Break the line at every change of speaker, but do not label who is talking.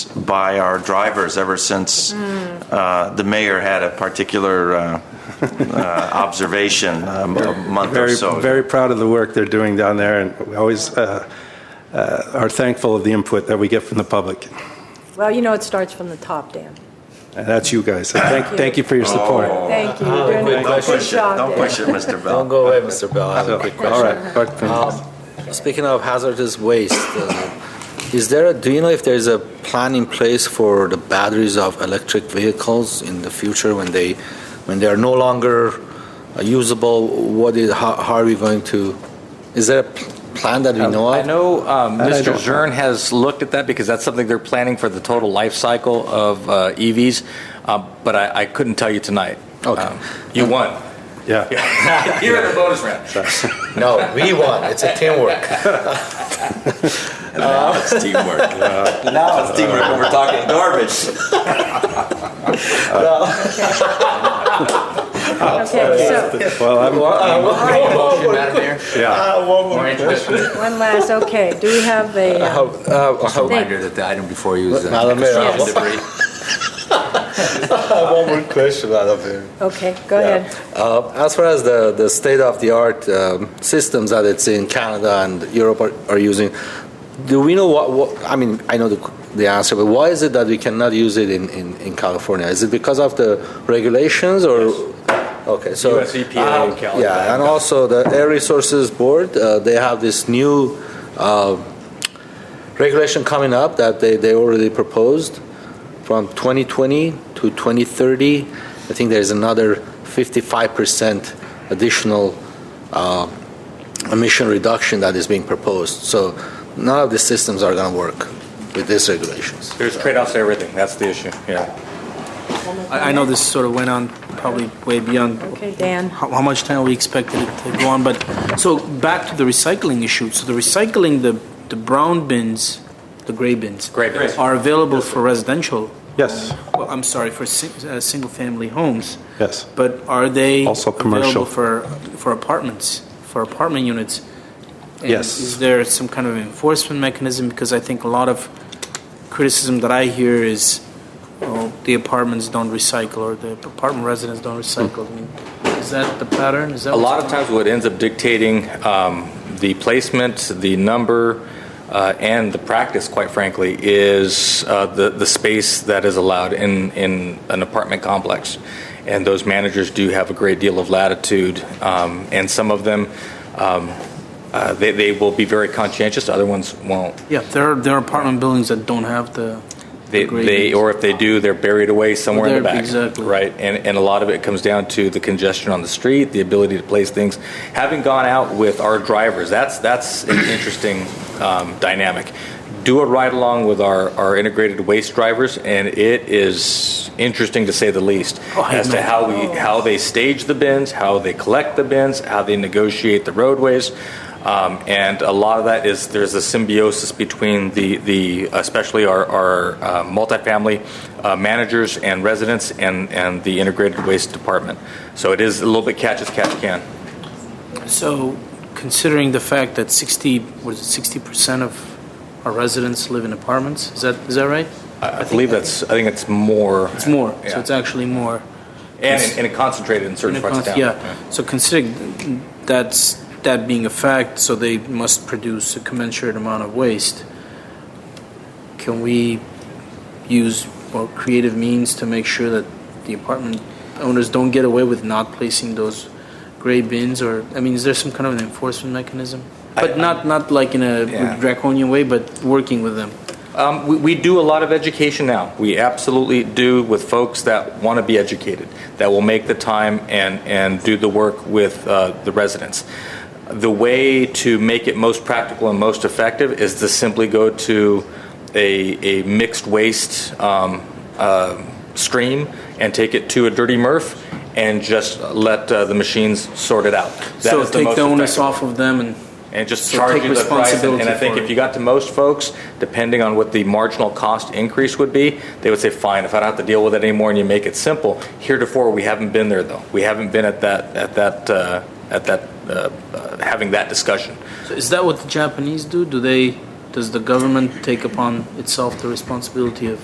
by our drivers ever since uh, the mayor had a particular uh, uh, observation um, a month or
Very,
so. ago.
very proud of the work they're doing down there, and we always uh, uh, are thankful of the input that we get from the public.
Well, you know, it starts from the top, Dan.
And that's you guys. So thank,
Thank you.
thank you for your support.
Thank you. You're
Oh, Don't
doing a good
push it,
job
don't
there.
push it, Mr.
Don't
Bell.
go away, Mr. Bell. I have a quick
So, all
question.
right. But,
Uh, Speaking of hazardous waste, uh, is there, do you know if there's a plan in place for the batteries of electric vehicles in the future when they, when they are no longer uh, usable? What is, how how are we going to, is there a p- plan that we know
I
of?
know um,
That I
Mr.
don't-
Zern has looked at that because that's something they're planning for the total life cycle of uh, EVs, uh, but I I couldn't tell you tonight.
Okay.
Um, You won.
yeah.
You're in the bonus round.
No, we won. It's a teamwork.
It's teamwork. Now it's teamwork when we're talking garbage.
Okay, so,
Well, I'm,
Motion, Madam Mayor?
Uh,
yeah.
one last, okay, do we have a, uh,
Just a reminder that the item before you is uh,
Madam Mayor, I
Yes.
have
debris.
one more question, Madam Mayor.
okay, go ahead.
Uh, as far as the, the state-of-the-art um, systems that it's in Canada and Europe are, are using, do we know what, what, I mean, I know the, the answer, but why is it that we cannot use it in, in, in California? Is it because of the regulations or? Okay, so. uh,
US EPA E in California.
Yeah, and also the Air Resources Board, uh, they have this new uh, regulation coming up that they, they already proposed from 2020 to 2030. I think there's another 55% additional uh, emission reduction that is being proposed. So none of the systems are going to work with these regulations.
There's trade-offs to everything. That's the issue. Yeah.
I I know this sort of went on probably way beyond
Okay, Dan,
how, how much time we expected it to go on, but, so back to the recycling issue. So the recycling, the, the brown bins, the gray bins.
Gray bins.
Are available for residential,
Yes.
well, I'm sorry, for si- uh, single-family homes.
Yes.
But are they?
Also commercial.
Available for, for apartments, for apartment units? And
Yes.
Is there some kind of enforcement mechanism? Because I think a lot of criticism that I hear is, well, the apartments don't recycle, or the apartment residents don't recycle. I mean,
Hmm.
Is that the pattern? Is that?
A lot of times, what ends up dictating um, the placement, the number, uh, and the practice, quite frankly, is uh, the the space that is allowed in in an apartment complex. And those managers do have a great deal of latitude, um, and some of them. Um, uh, they, they will be very conscientious. Other ones won't.
Yeah, there are, there are apartment buildings that don't have the.
They,
Agreed.
they, or if they do, they're buried away somewhere in the
They're-
back.
exactly.
Right, and, and a lot of it comes down to the congestion on the street, the ability to place things. Having gone out with our drivers, that's, that's an interesting um, dynamic. Do a ride-along with our, our integrated waste drivers, and it is interesting to say the least.
Oh, I
As to
know.
how we, how they stage the bins, how they collect the bins, how they negotiate the roadways. Um, and a lot of that is there's a symbiosis between the, the especially our, our uh, multifamily uh, managers and residents and, and the integrated waste department. So it is a little bit catch as catch can.
So considering the fact that 60, what is it, 60% of our residents live in apartments, is that, is that right?
I, I believe that's I think it's more
It's more,
Yeah.
so it's actually more.
and, and it concentrated in certain
In a
parts of
cons-
town.
Yeah, so considering that's, that being a fact, so they must produce a commensurate amount of waste, can we use more creative means to make sure that the apartment owners don't get away with not placing those gray bins, or, I mean, is there some kind of an enforcement mechanism? But not, not like in
Yeah.
a draconian way, but working with them.
Um, we, we do a lot of education now. We absolutely do with folks that want to be educated, that will make the time and, and do the work with uh, the residents. The way to make it most practical and most effective is to simply go to a, a mixed waste um, uh, stream and take it to a dirty MRF and just let uh, the machines sort it out. That
So
is the
take
most
the onus
effective
off of them and
and just
So
charge
take
you the price. And- And I
responsibility
think
for
if
it.
you got to most folks, depending on what the marginal cost increase would be, they would say, fine, if I don't have to deal with it anymore and you make it simple. Heretofore, we haven't been there though. We haven't been at that, at that, uh, at that, uh, uh, having that discussion.
So is that what the Japanese do? Do they, does the government take upon itself the responsibility of